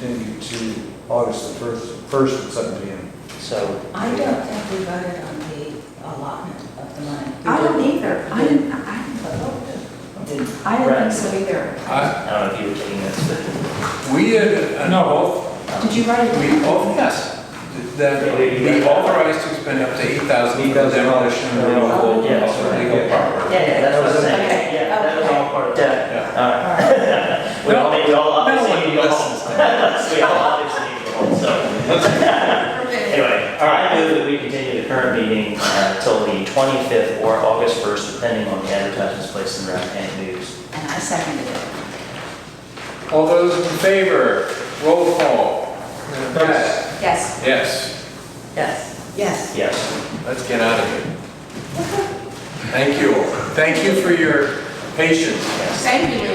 to August the first, first at seven P M. So, I don't think we voted on the allotment of the money. I don't either. I didn't, I, Did- I didn't think so either. I, I don't know if you were taking this, Uh, we had, no, Did you write it? we, oh, yes, that we authorized to spend up to eight thousand for demolition and removal of Yeah. but. illegal property. Yeah, yeah, that's what I'm saying. Okay, Yeah, that was all part of that. Yeah. All right. We all, made- we all obviously need to We all obviously need to hold, so. Anyway, all right, I move that we continue the current meeting until the 25th or August 1st, depending on the advertisements placed in the Rappahannock News. And I seconded it. All those in favor, roll call. Yes. Yes. Yes, Yes. Yes. Yes. let's get out of here. Thank you. Thank you for your patience. Thank you.